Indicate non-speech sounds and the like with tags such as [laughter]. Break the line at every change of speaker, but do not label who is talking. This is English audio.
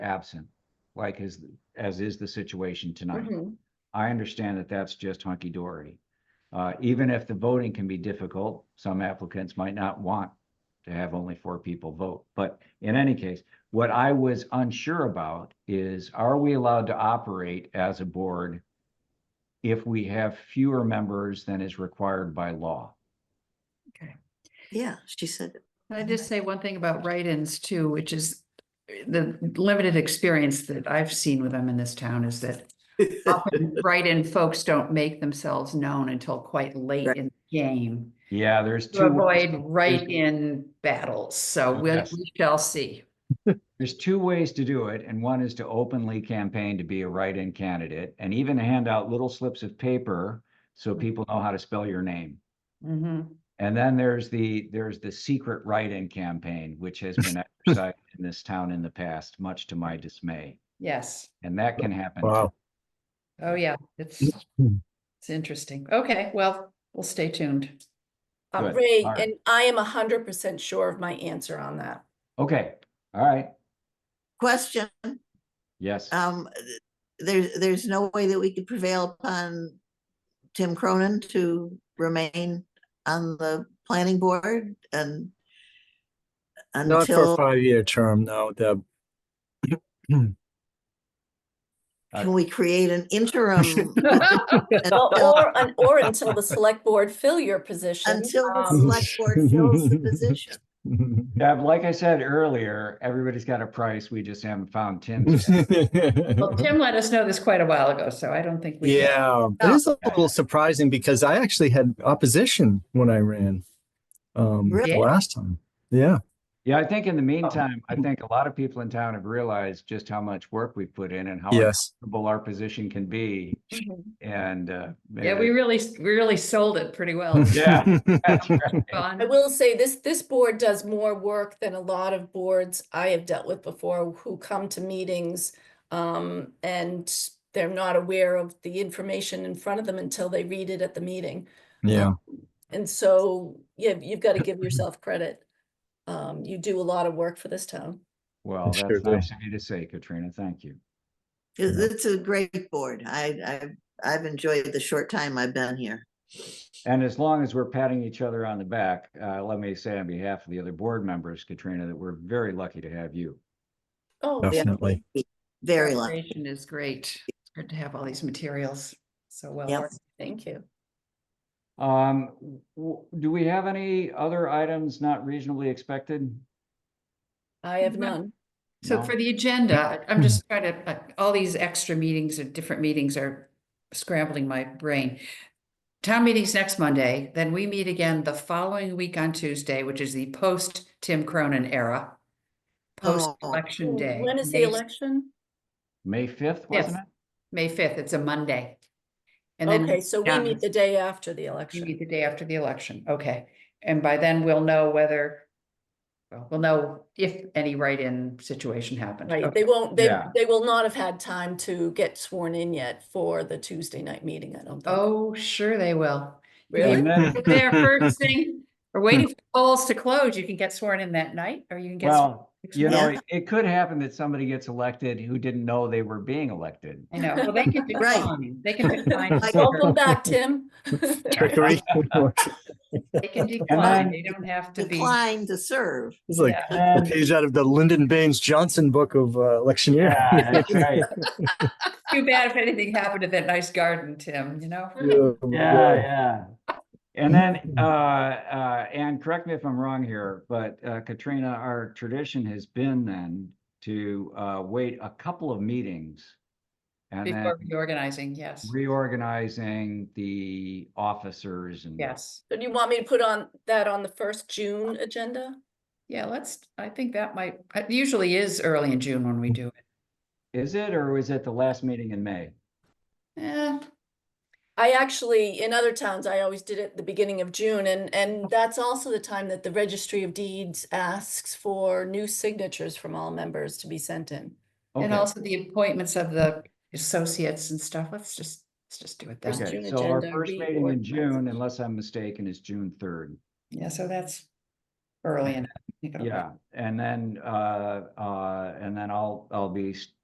absent, like as, as is the situation tonight.
Mhm.
I understand that that's just hunky dory. Uh, even if the voting can be difficult, some applicants might not want to have only four people vote. But in any case, what I was unsure about is, are we allowed to operate as a board if we have fewer members than is required by law?
Yeah, she said,
Can I just say one thing about write-ins too, which is uh, the limited experience that I've seen with them in this town is that
[laughs]
often write-in folks don't make themselves known until quite late
Right. Mm-hmm.
in the game
Yeah, there's
to
two. ways-
avoid write-in battles. So we'll,
Oh, Yes.
we shall see.
There's two ways to do it, and one is to openly campaign to be a write-in candidate and even hand out little slips of paper so people know how to spell your name.
Mhm.
And then there's the, there's the secret write-in campaign, which has been exercised in this town in the past, much to my dismay.
Yes.
And that can happen. too.
Wow.
Oh, yeah. It's,
Mm-hmm.
it's interesting. Okay, well, we'll stay tuned.
Um,
Good.
Ray,
All right.
and I am hundred percent sure of my answer on that.
Okay, all right,
question,
yes.
um, th- there's, there's no way that we could prevail upon Tim Cronin to remain on the planning board and
Not for a
until,
five-year term, no, Deb.
can we create an
[laughs]
interim?
Well,
until-
Or, un- or until the select board fill your position.
Until
[laughs]
the
um,
[laughs] select board fills the position.
Deb, like I said earlier, everybody's got a price, we just haven't found Tim's.
[laughs]
yet.
Well, Tim let us know this quite a while ago, so I don't think we. can-
Yeah, it is a little surprising because I actually had opposition when I ran um,
Really?
the last time. Yeah,
Yeah, I think in the meantime, I think a lot of people in town have realized just how much work we've put in and how
yes.
uncomfortable our position can be
Mhm.
and, uh.
Yeah, we really, we really sold it pretty well.
[laughs] Oh, Yeah. that's
[laughs]
right.
I will say this, this board does more work than a lot of boards I have dealt with before who come to meetings. Um, and they're not aware of the information in front of them until they read it at the meeting.
[laughs] Yeah,
And so, yeah, you've got to give
Mm-hmm.
yourself credit. Um, you do a lot of work for this town.
Well,
Sure
that's
do.
nice of you to say, Katrina, thank you.
It- It's a great board. I, I, I've enjoyed the short time I've been here.
And as long as we're patting each other on the back, uh, let me say on behalf of the other board members, Katrina, that we're very lucky to have you.
Oh, yeah.
definitely.
Very long.
Preparation Is great. It's good to have all these materials. So well,
Yep.
worth it.
Thank you.
Um, w- w- do we have any other items not reasonably expected?
I have
Mhm.
none.
so
No?
for the agenda, I- I'm just trying to, uh, all these extra meetings or different meetings are scrambling my brain. Town meeting's next Monday, then we meet again the following week on Tuesday, which is the post Tim Cronin era. Post
Oh.
election day.
When is the
May-
election?
May fifth,
Yes.
wasn't it?
May fifth, it's a Monday. And then
Okay, so we
done.
meet the day after the
You
election.
meet the day after the election, okay. And by then we'll know whether, well, we'll know if any write-in situation happened.
Right,
Okay.
they won't, they,
Yeah.
they will not have had time to get sworn in yet for the Tuesday night meeting, I don't think.
Oh, sure they will.
Really?
And then-
There first thing, we're waiting for polls to close. You can get sworn in that night or you can get. sworn
Well,
next
you know,
month.
it- it could happen that somody gets elected who didn't know they were being elected.
I know, well, they can
Right.
decline, they can decline.
Like-
Welcome
[laughs] sure.
back, Tim.
Trickery. [laughs]
They can decline,
then-
they don't have to be.
Declined to serve.
It's like a
And-
page out of the Lyndon Baines Johnson book of uh, electioneer.
[laughs] Yeah, that's right.
Too bad if anything happened to that nice garden, Tim, you know?
Yeah,
Yeah, yeah. And then, uh, uh, and correct me if I'm wrong here, but uh, Katrina, our tradition has been then to, uh, wait a couple of meetings. And then
Before reorganizing, yes,
reorganizing the officers and.
yes.
So do you want me to put on that on the first June agenda?
Yeah, let's, I think that might, it usually is early in June when we do it.
Is it, or is it the last meeting in May?
Eh,
I actually, in other towns, I always did it the beginning of June, and, and that's also the time that the Registry of Deeds asks for new signatures from all members to be sent in.
and
Okay,
also the appointments of the associates and stuff, let's just, let's just do it then.
First
okay,
June
so our
agenda,
first meeting in
reorganization.
June, unless I'm mistaken, is June third.
Yeah, so that's early enough. Take it away.
Yeah, and then, uh, uh, and then I'll, I'll be s-